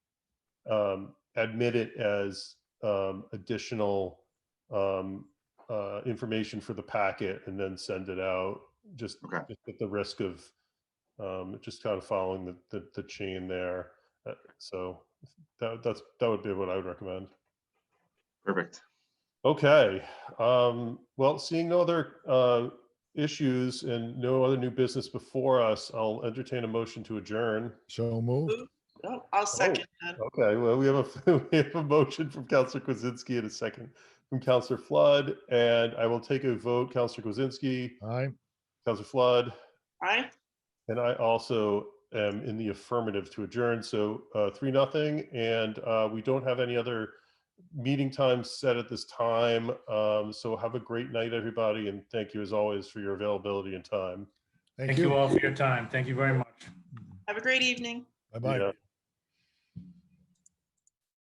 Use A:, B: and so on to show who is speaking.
A: um, admit it as um, additional um, uh, information for the packet and then send it out, just
B: Okay.
A: just at the risk of um, just kind of following the, the, the chain there. Uh, So that, that's, that would be what I would recommend.
B: Perfect.
A: Okay, um, well, seeing no other, uh, issues and no other new business before us, I'll entertain a motion to adjourn.
C: So moved.
D: Oh, I'll second that.
A: Okay, well, we have a, we have a motion from Counselor Kwasinski and a second from Counselor Flood, and I will take a vote, Counselor Kwasinski,
C: Aye.
A: Counselor Flood,
D: Aye.
A: and I also am in the affirmative to adjourn, so, uh, three, nothing, and, uh, we don't have any other meeting times set at this time, um, so have a great night, everybody, and thank you as always for your availability and time.
E: Thank you all for your time. Thank you very much.
D: Have a great evening.
C: Bye-bye.
A: Yeah.